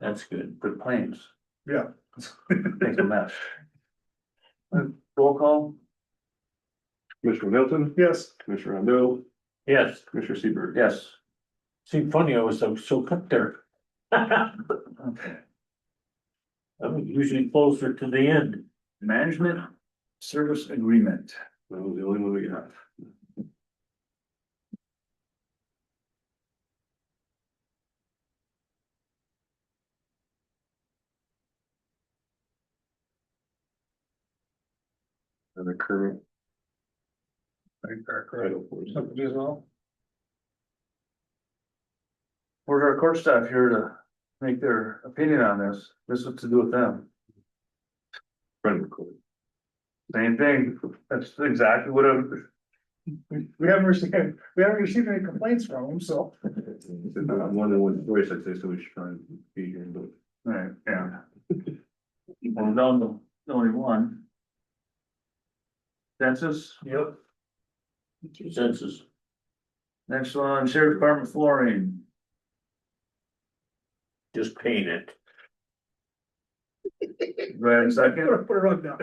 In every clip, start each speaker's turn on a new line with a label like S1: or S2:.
S1: That's good. Good plans.
S2: Yeah.
S1: Thanks a mess. Roll call?
S3: Commissioner Middleton,
S2: Yes.
S3: Commissioner Rondo,
S1: Yes.
S3: Commissioner Seabird.
S1: Yes. See, funny, I was so, so cut there. I'm usually closer to the end.
S2: Management Service Agreement.
S3: That was the only one we got. And the current. title for it.
S1: Where's our court staff here to make their opinion on this? This is to do with them.
S3: Friend recording.
S1: Same thing. That's exactly what I'm.
S2: We, we haven't received, we haven't received any complaints from them, so.
S3: I'm one of the ones, voice I'd say, so we should try and be here, but.
S1: Right, yeah. Well, down to only one. Census? Yep. Census. Next one, Sheriff Department flooring. Just paint it. Right, second?
S2: Put a rug down.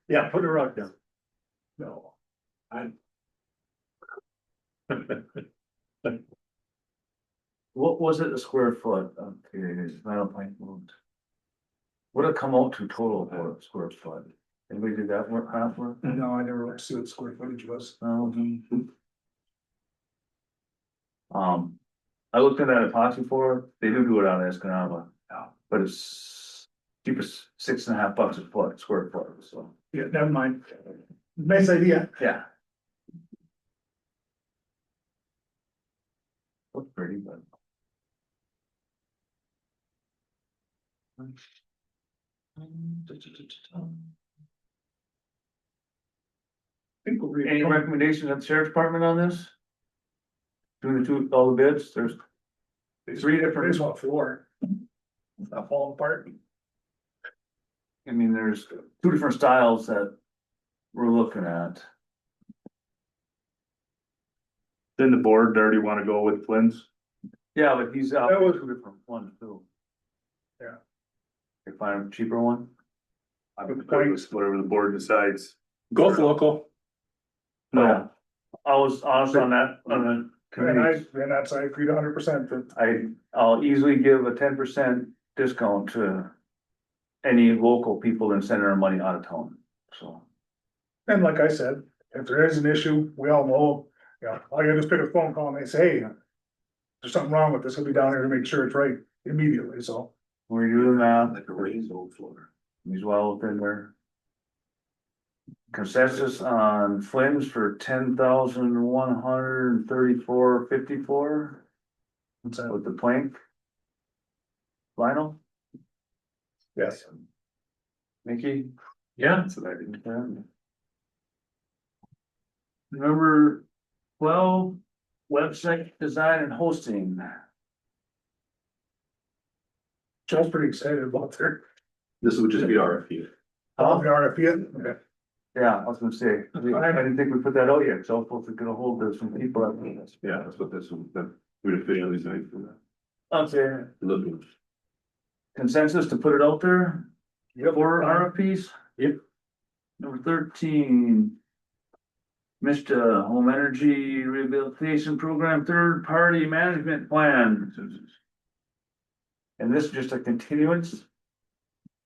S1: Yeah, put a rock down.
S2: No.
S1: What was it a square foot? Okay, Meadow Plank moved. What'd it come out to total for a square foot? Anybody did that work, half work?
S2: No, I never looked to see what square footage was.
S1: thousand. Um, I looked at that epoxy floor, they do do it out of Escanaba, but it's cheapest, six and a half bucks a foot, square foot, so,
S2: Yeah, never mind. Nice idea.
S1: yeah. Looks pretty, but.
S2: Think we'll read-
S1: Any recommendations at the sheriff's department on this? Doing the two, all the bids, there's three different.
S2: There's one floor. Not falling apart.
S1: I mean, there's two different styles that we're looking at.
S3: Then the board already wanna go with Flynn's?
S1: Yeah, but he's out.
S2: That was-
S1: Two different ones too.
S2: Yeah.
S1: They find a cheaper one?
S3: Whatever the board decides.
S4: Go with local.
S1: No. I was honest on that, on the
S2: And I,
S1: committee.
S2: and that's, I agreed hundred percent that
S1: I, I'll easily give a ten percent discount to any local people and send their money out of town, so.
S2: And like I said, if there is an issue, we all know, you know, all you gotta do is pick a phone call and they say, hey. There's something wrong with this, we'll be down here to make sure it's right immediately, so.
S1: We're doing that,
S3: a raised old floor.
S1: he's well within their Consensus on Flynn's for ten thousand one hundred and thirty-four fifty-four.
S2: it's, uh,
S1: with the plank. Lionel,
S2: Yes.
S1: Mickey,
S4: Yeah.
S3: That's what I did.
S1: number twelve, website design and hosting.
S2: Joe's pretty excited about their,
S3: This would just be RFP.
S2: about the RFP.
S1: Yeah, I was gonna say, we- I didn't think we put that out yet, so hopefully we get a hold of some people.
S3: Yeah, that's what this, would- that would officially design for that.
S1: I'm saying
S3: Looking.
S1: consensus to put it out there
S2: Yep.
S1: for RFPs.
S4: Yep.
S1: Number thirteen. Mr. Home Energy Rehabilitation Program Third Party Management Plan. And this is just a continuance?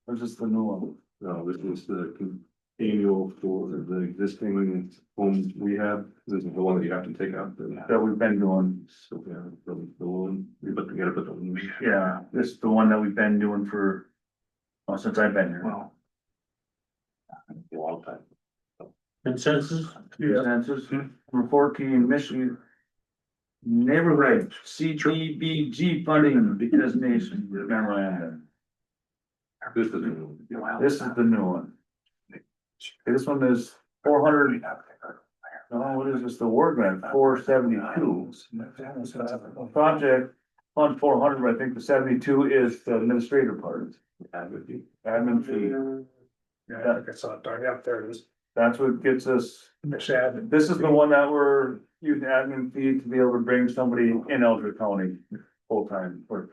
S1: Or is this the new one?
S3: No, uh, this is the con- annual for the existing homes we have. This is the one that you have to take out. the-
S1: That we've been doing,
S3: So, yeah, the, the one, we put together, but the one. we-
S1: yeah, this is the one that we've been doing for, oh, since I've been here.
S3: Wow. A long time.
S4: Consensus?
S2: Yeah.
S1: Consensus, number fourteen, Michigan. Neighborhood CDBG funding designation memorandum,
S3: This is. Wow.
S1: this is the new one. This one is four hundred, no, what is this, the word grant, four seventy-two. Project fund four hundred, I think the seventy-two is the administrator part, admin fee.
S2: Yeah, I think I saw it, darn, yeah, there it is,
S1: That's what gets us,
S2: Mashad.
S1: this is the one that we're using admin fee to be able to bring somebody in Eldrick County full-time for